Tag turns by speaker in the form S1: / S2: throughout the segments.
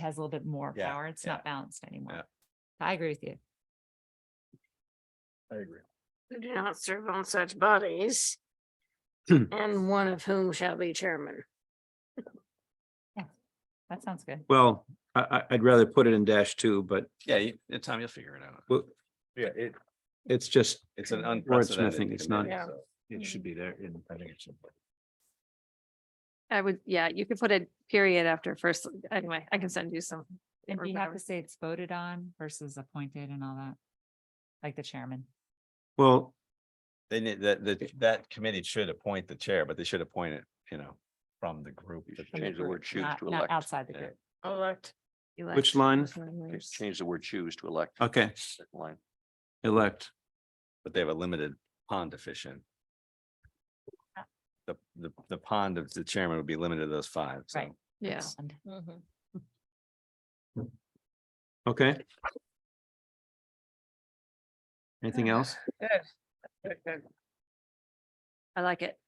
S1: has a little bit more
S2: Yeah,
S1: power. It's
S2: yeah,
S1: not balanced
S2: yeah.
S1: anymore. I agree with you.
S2: I agree.
S3: do not serve on such bodies.
S2: Hmm.
S3: And one of whom shall be chairman.
S1: That sounds good.
S4: Well, I, I, I'd rather put it in dash two, but
S2: Yeah, you, uh, Tom, you'll figure it out.
S4: w-
S2: Yeah, it,
S4: it's just,
S2: it's an
S4: Wordsmithing,
S2: unprecedented.
S4: it's not-
S2: committee, so
S3: Yeah. it should
S2: be there in, I think it's.
S5: I would, yeah, you could put a period after first, anyway, I can send you some.
S1: And
S5: or
S1: do you have
S5: whatever.
S1: to say it's voted on versus appointed and all that? Like the chairman.
S4: well,
S2: They need, that, that, that committee should appoint the chair, but they should appoint it, you know, from the group.
S6: You
S2: that
S6: should
S1: from
S2: they-
S6: Change the
S1: group,
S6: word choose
S1: not-
S6: to
S1: not
S6: elect.
S1: Outside the
S2: Yeah.
S1: group.
S3: Elect.
S4: which line?
S6: Just Change the word choose to elect.
S4: Okay,
S6: Second Line.
S4: elect.
S2: But they have a limited pond efficient. The, the, the pond of the chairman would be limited to those five, so.
S1: Right.
S5: Yeah, Mm-hmm.
S1: And
S4: Okay. Anything else?
S5: I like it.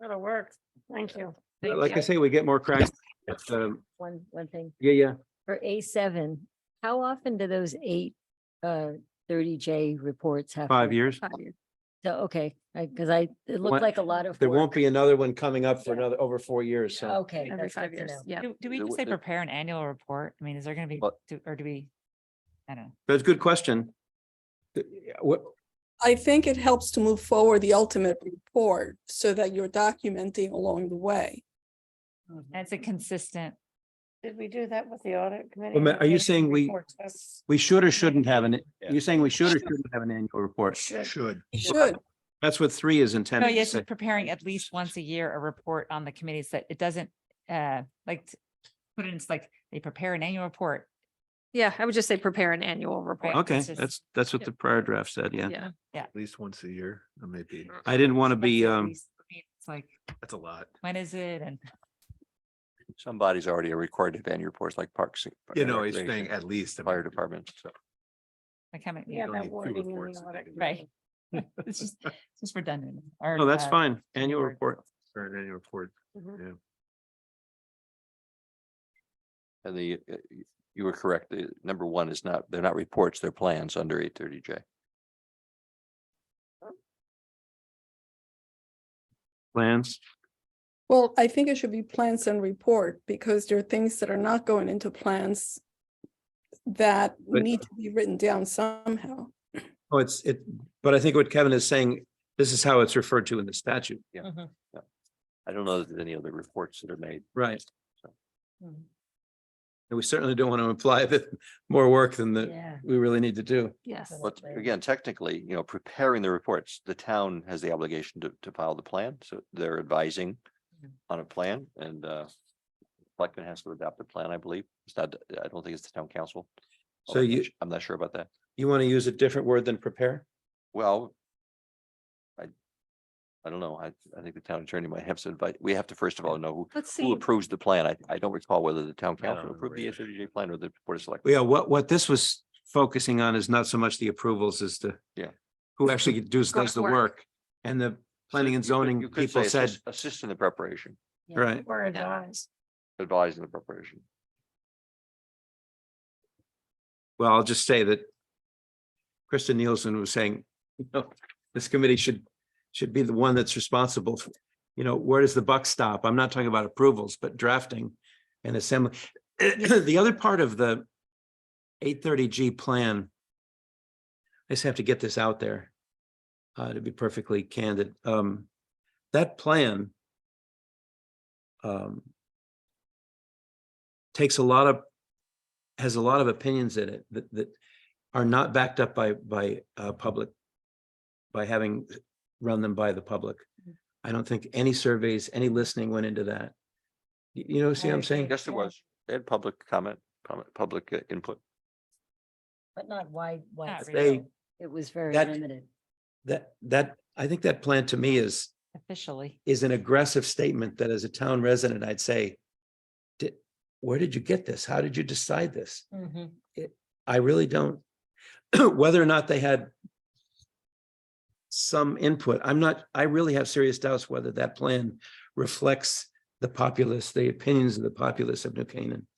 S3: That'll work. Thank you.
S4: Like I say, we get more cracks. It's, um,
S7: One, one thing,
S4: Yeah, yeah.
S7: for A seven, how often do those eight, uh, thirty J reports happen?
S4: Five years.
S5: Five years.
S7: So, okay, I, cause I, it
S4: One-
S7: looked like a lot of.
S4: There
S7: work.
S4: won't be another one coming up for another, over four years, so.
S7: Okay.
S5: Every
S7: that's
S5: five
S7: good to
S5: years,
S7: know.
S5: yeah.
S1: Do, do we
S6: There
S1: just
S6: wa-
S1: say
S6: there-
S1: prepare an annual report? I mean, is there gonna be,
S6: But-
S1: do- or do we? I don't know.
S4: That's a good question. The- yeah, What,
S8: I think it helps to move forward the ultimate report so that you're documenting along the way.
S1: And it's a consistent,
S3: Did we do that with the audit committee?
S4: Well, ma- are you saying we- we should or shouldn't have an, you're saying we should or shouldn't have an annual report?
S6: Should.
S8: You should.
S4: That's what three is
S1: no,
S4: intended to
S1: Oh, yes,
S4: say.
S1: it's preparing at least once a year, a report on the committees that it doesn't, uh, like. t- Put it in, it's like, they prepare an annual report.
S5: Yeah, I would just say prepare an annual report.
S1: Right.
S4: Okay,
S1: it's just-
S4: that's, that's what the prior draft said, yeah.
S5: Yeah,
S9: at least once a year, or maybe,
S4: I didn't want to
S1: Once
S4: be,
S1: at
S4: um,
S1: least. I mean, It's like,
S9: that's a lot.
S1: when is it? And
S6: Some bodies already are required to have annual reports like Parks. and-
S9: You know, he's
S6: Recreation,
S9: saying at least. I mean,
S6: Fire department. so.
S1: like, how many?
S3: Yeah,
S9: don't need
S3: that
S9: two
S3: wording in
S9: reports.
S3: the audit.
S1: Right. It's just, it's just redundant. uh,
S4: no, Oh, that's fine. Annual report.
S9: for an annual report.
S3: Mhm.
S6: And the, uh, y- you were correct. The number one is not, they're not reports, they're plans under eight thirty J.
S4: Plans.
S8: Well, I think it should be plans and report because there are things that are not going into plans that
S4: But-
S8: need to be written down somehow.
S4: Oh, it's, it, but I think what Kevin is saying, this is how it's referred to in the statute.
S6: I don't know that there's any other reports that are made.
S4: Right.
S1: hmm.
S4: And we certainly don't want to imply that more work than that
S7: Yeah.
S4: we really need to do.
S5: yes.
S6: But
S7: Absolutely.
S6: again, technically, you know, preparing the reports, the town has the obligation to, to file the plan, so they're advising
S1: Mhm.
S6: on a plan and, uh, selectmen has to adopt the plan, I believe. It's not, I don't think it's the town council.
S4: So
S6: although I'm not
S4: you-
S6: su- I'm not sure about that.
S4: You want to use a different word than prepare?
S6: Well, I, I don't know. I, I think the town attorney might have to invite, we have to first of all know who-
S5: Let's
S6: who
S5: see,
S6: approves the plan. I, I don't recall whether the town
S2: I don't
S6: council approved the
S2: remember
S6: thirty day plan or the board of selectmen.
S4: Yeah, what, what this was focusing on is not so much the approvals as the
S6: Yeah.
S4: who actually does, does the
S5: Grunt work.
S4: work. And the planning and
S6: You could-
S4: zoning
S6: you could
S4: people
S6: say
S4: said,
S6: assist- Assist in the preparation,
S7: Yeah.
S4: right,
S3: We're advised.
S6: advise in the preparation.
S4: well, I'll just say that Kristen Nielsen was saying, you know, this committee should, should be the one that's responsible. for You know, where does the buck stop? I'm not talking about approvals, but drafting and assembly. The other part of the eight thirty G plan, I just have to get this out there, uh, to be perfectly candid. Um, that plan um, takes a lot of, has a lot of opinions in it that, that are not backed up by, by, uh, public, by having run them by the public. I don't think any surveys, any listening went into that. You, you know, see what I'm saying?
S6: Yes, there was. They had public comment, comment, public uh, input.
S7: But not wide, wide.
S4: They,
S7: It was very
S4: that-
S7: limited.
S4: that, that, I think that plan to me is,
S1: Officially.
S4: is an aggressive statement that as a town resident, I'd say, did, where did you get this? How did you decide this? I really don't. Whether or not they had some input, I'm not, I really have serious doubts whether that plan reflects the populace, the opinions of the populace of New Canaan.